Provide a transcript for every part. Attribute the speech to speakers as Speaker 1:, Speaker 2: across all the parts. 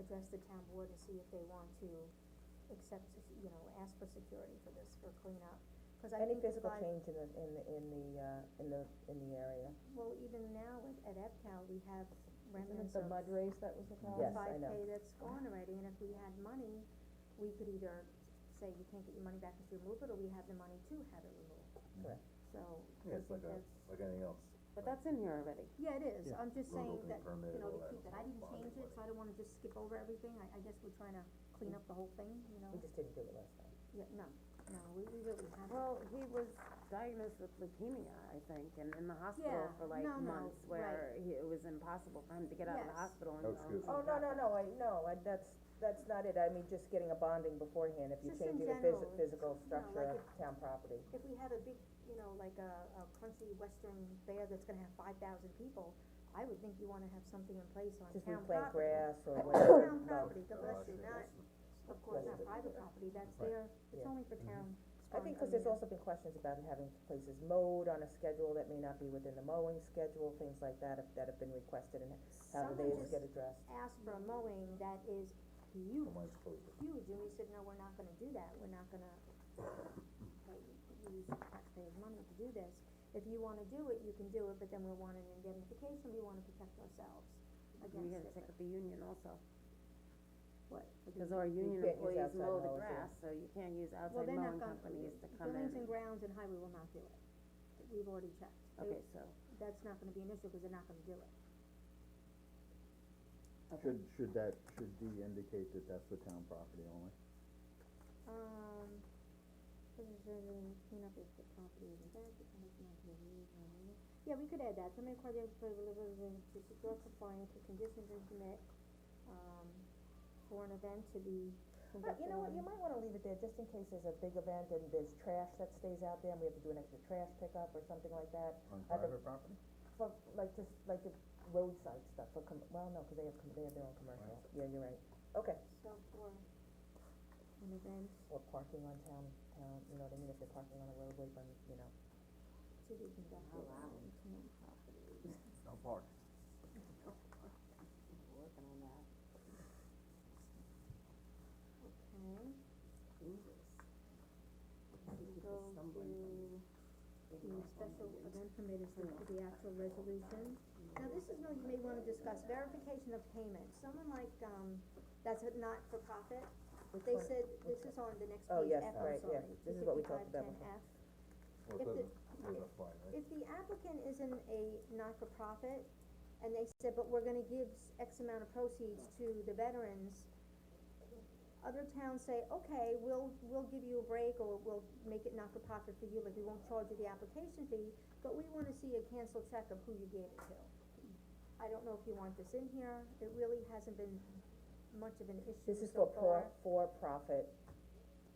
Speaker 1: address the town board and see if they want to accept, sec- you know, ask for security for this, for cleanup. Cause I
Speaker 2: Any
Speaker 1: think
Speaker 2: physical
Speaker 1: by-
Speaker 2: change in the, in the, in the, uh, in the, in the area?
Speaker 1: well, even now at, at EPCAL, we have
Speaker 3: Isn't it
Speaker 1: remnants
Speaker 3: the
Speaker 1: of
Speaker 3: mud race that was the problem?
Speaker 2: Yes, I
Speaker 1: five
Speaker 2: know.
Speaker 1: K that's gone already, and if we had money, we could either say you can't get your money back if you remove it, or we have the money to have it removed.
Speaker 2: Correct.
Speaker 1: So, I
Speaker 4: Yeah, it's
Speaker 1: think
Speaker 4: like a,
Speaker 1: that's,
Speaker 4: like anything else.
Speaker 5: But that's in here already.
Speaker 1: yeah, it is,
Speaker 4: Yeah.
Speaker 1: I'm just
Speaker 4: Road
Speaker 1: saying
Speaker 4: opening
Speaker 1: that,
Speaker 4: permit,
Speaker 1: you know, to
Speaker 4: all that
Speaker 1: keep it, I
Speaker 4: whole
Speaker 1: didn't
Speaker 4: body
Speaker 1: change it,
Speaker 4: work.
Speaker 1: so I don't wanna just skip over everything, I, I guess we're trying to clean up the whole thing, you know?
Speaker 2: We just didn't do it last time.
Speaker 1: Yeah, no, no, we, we really haven't.
Speaker 5: Well, he was diagnosed with leukemia, I think, and in the hospital
Speaker 1: Yeah,
Speaker 5: for like
Speaker 1: no, no,
Speaker 5: months where he, it was impossible for him to get out of the
Speaker 1: Yes.
Speaker 5: hospital and.
Speaker 4: No
Speaker 5: um,
Speaker 4: excuse.
Speaker 2: Oh, no, no, no, I, no, I, that's, that's not it, I mean, just getting a bonding beforehand, if you're
Speaker 1: Just in
Speaker 2: changing the phys-
Speaker 1: general,
Speaker 2: physical
Speaker 1: it's, you know,
Speaker 2: structure
Speaker 1: like
Speaker 2: of town property.
Speaker 1: If we have a big, you know, like a, a crunchy western fair that's gonna have five thousand people, I would think you wanna have something in place on
Speaker 2: Just
Speaker 1: town
Speaker 2: replant
Speaker 1: property.
Speaker 2: grass or whatever,
Speaker 1: Town
Speaker 2: no,
Speaker 1: property, God
Speaker 4: No,
Speaker 1: bless
Speaker 4: Oh, I
Speaker 1: you,
Speaker 4: think
Speaker 1: not,
Speaker 4: that's the-
Speaker 1: of course, not
Speaker 2: Residential.
Speaker 1: private property, that's
Speaker 4: Right. Mm-hmm.
Speaker 1: there, it's
Speaker 2: Yeah.
Speaker 1: only for town.
Speaker 2: I think, cause there's also been questions about having places mowed on a schedule that may not be within the mowing schedule, things like that, if, that have been requested, and how do they get addressed?
Speaker 1: Someone just asked for a mowing that is huge,
Speaker 4: Somebody's supposed to-
Speaker 1: huge, and we said, no, we're not gonna do that, we're not gonna, like, use taxpayers' money to do this. If you wanna do it, you can do it, but then we want an indemnification, we wanna protect ourselves
Speaker 5: We
Speaker 1: against
Speaker 5: gotta
Speaker 1: it.
Speaker 5: check with the union also,
Speaker 1: What? for the-
Speaker 5: cause our union
Speaker 2: can't use
Speaker 5: employees
Speaker 2: outside
Speaker 5: mow the
Speaker 2: mowers, yeah.
Speaker 5: grass, so you can't use
Speaker 1: Well,
Speaker 5: outside
Speaker 1: they're not
Speaker 5: mowing
Speaker 1: gonna,
Speaker 5: companies to come in.
Speaker 1: buildings and grounds and highway will not do it, we've already checked,
Speaker 5: Okay,
Speaker 1: They-
Speaker 5: so,
Speaker 1: that's not gonna be an issue, cause they're not gonna do it.
Speaker 5: okay,
Speaker 6: Should, should that, should D indicate that that's the town property only?
Speaker 1: Um, preserving, clean up if the property is in bad, the tenant might be leaving. Yeah, we could add that, to make the delivery to secure compliance with conditions and permit, um, for an event to be
Speaker 2: But
Speaker 1: conducted
Speaker 2: you know what, you
Speaker 1: on-
Speaker 2: might wanna leave it there, just in case there's a big event and there's trash that stays out there, and we have to do an extra trash pickup or something like that.
Speaker 6: On
Speaker 2: I think-
Speaker 6: private property?
Speaker 2: For, like, just, like the roadside stuff, for com- well, no, cause they have, com- they have their own commercial, yeah, you're right, okay.
Speaker 1: So for an event
Speaker 2: Or parking on town, town, you know what I mean, if they're parking on a roadway, but, you know,
Speaker 1: to be conducted on town property.
Speaker 6: No park.
Speaker 5: working on that.
Speaker 1: Okay,
Speaker 5: Jesus.
Speaker 1: we go to the special event permit is the, the actual resolution. Now, this is one you may wanna discuss, verification of payment, someone like, um, that's a not-for-profit,
Speaker 2: which
Speaker 1: They
Speaker 2: one-
Speaker 1: said, this is on the next
Speaker 2: Oh,
Speaker 1: page,
Speaker 2: yes,
Speaker 1: F, I'm
Speaker 2: right, yeah,
Speaker 1: sorry,
Speaker 2: this is what we talked about
Speaker 1: 255, 10 F. If
Speaker 4: Well, it
Speaker 1: the-
Speaker 4: doesn't, it doesn't apply, right?
Speaker 1: If the applicant is in a not-for-profit, and they said, but we're gonna give s- X amount of proceeds to the veterans, other towns say, okay, we'll, we'll give you a break, or we'll make it not-for-profit for you, like, we won't charge you the application fee, but we wanna see a cancel check of who you gave it to. I don't know if you want this in here, it really hasn't been much of an issue
Speaker 2: This is
Speaker 1: so far.
Speaker 2: for pro, for-profit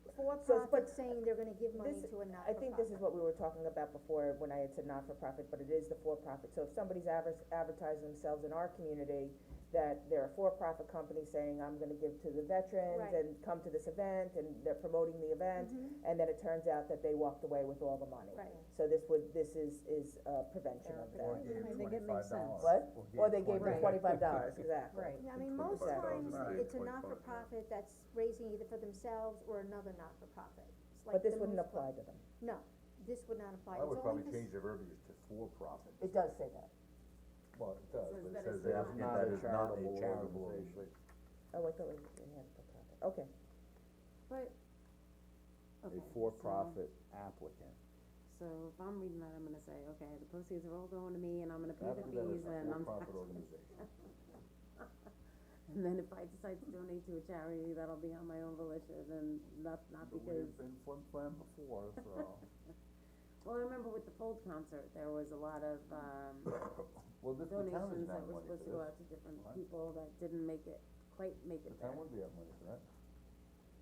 Speaker 2: So, but
Speaker 1: For-profit saying they're gonna give money
Speaker 2: this-
Speaker 1: to a
Speaker 2: I think this
Speaker 1: not-for-profit.
Speaker 2: is what we were talking about before, when I had said not-for-profit, but it is the for-profit, so if somebody's adver- advertising themselves in our community, that they're a for-profit company saying, I'm gonna give to the veterans
Speaker 1: Right.
Speaker 2: and come to this event, and they're promoting the event, and then it turns out that they walked away with all the money.
Speaker 1: Mm-hmm. Right.
Speaker 2: So this would, this is, is, uh, prevention of
Speaker 4: Or
Speaker 2: that.
Speaker 4: give you
Speaker 5: I think it
Speaker 4: $25.
Speaker 5: makes sense.
Speaker 2: What? Or they gave
Speaker 4: you
Speaker 2: them
Speaker 3: Right.
Speaker 2: twenty-five dollars, exactly.
Speaker 3: Right.
Speaker 1: I mean, most
Speaker 4: 25,000
Speaker 1: times,
Speaker 4: right.
Speaker 1: it's a
Speaker 4: 25,000.
Speaker 1: not-for-profit that's raising either for themselves or another not-for-profit. It's like
Speaker 2: But this
Speaker 1: the
Speaker 2: wouldn't
Speaker 1: most-
Speaker 2: apply to them.
Speaker 1: No, this would not apply, it's
Speaker 4: I
Speaker 1: only
Speaker 4: would probably
Speaker 1: for,
Speaker 4: change
Speaker 1: s-
Speaker 4: the verbiage to for-profit,
Speaker 2: It does say that.
Speaker 4: well, it does, but
Speaker 5: Says that
Speaker 4: it says
Speaker 5: it's
Speaker 4: the
Speaker 5: not.
Speaker 4: applicant that is not a charitable organization.
Speaker 2: Oh, I thought we, we had for-profit, okay.
Speaker 5: But, okay,
Speaker 6: A
Speaker 5: so-
Speaker 6: for-profit applicant.
Speaker 5: So if I'm reading that, I'm gonna say, okay, the proceeds are all going to me and I'm gonna pay the
Speaker 4: Applicant that is
Speaker 5: fees
Speaker 4: a
Speaker 5: and I'm.
Speaker 4: for-profit organization.
Speaker 5: And then if I decide to donate to a charity, that'll be on my own volition and not, not
Speaker 6: But
Speaker 5: because,
Speaker 6: we've been flim flam before, so.
Speaker 5: well, I remember with the Fold concert, there was a lot of, um,
Speaker 6: Well, this, the town isn't
Speaker 5: donations that
Speaker 6: have
Speaker 5: were
Speaker 6: money for
Speaker 5: supposed to
Speaker 6: this.
Speaker 5: go out to different
Speaker 6: What?
Speaker 5: people that didn't make it, quite make
Speaker 6: The
Speaker 5: it
Speaker 6: town
Speaker 5: there.
Speaker 6: wouldn't be out money for that.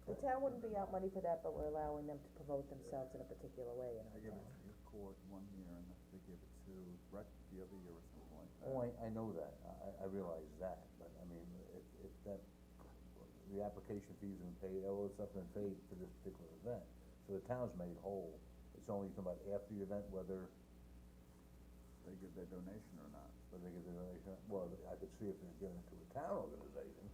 Speaker 2: The town wouldn't be out money for that, but we're allowing them to promote themselves in a particular way in
Speaker 6: I
Speaker 2: our
Speaker 6: gave it
Speaker 2: town.
Speaker 6: to your court one year and they gave it to rec the other year or something like that.
Speaker 4: Oh, I, I know that, I, I realize that, but I mean, if, if that, the application fees and pay, all this stuff been paid for this particular event, so the town's made whole, it's only something about after the event, whether,
Speaker 6: They give their donation or not.
Speaker 4: whether they give the donation, well, I could see if they're giving it to a town organization,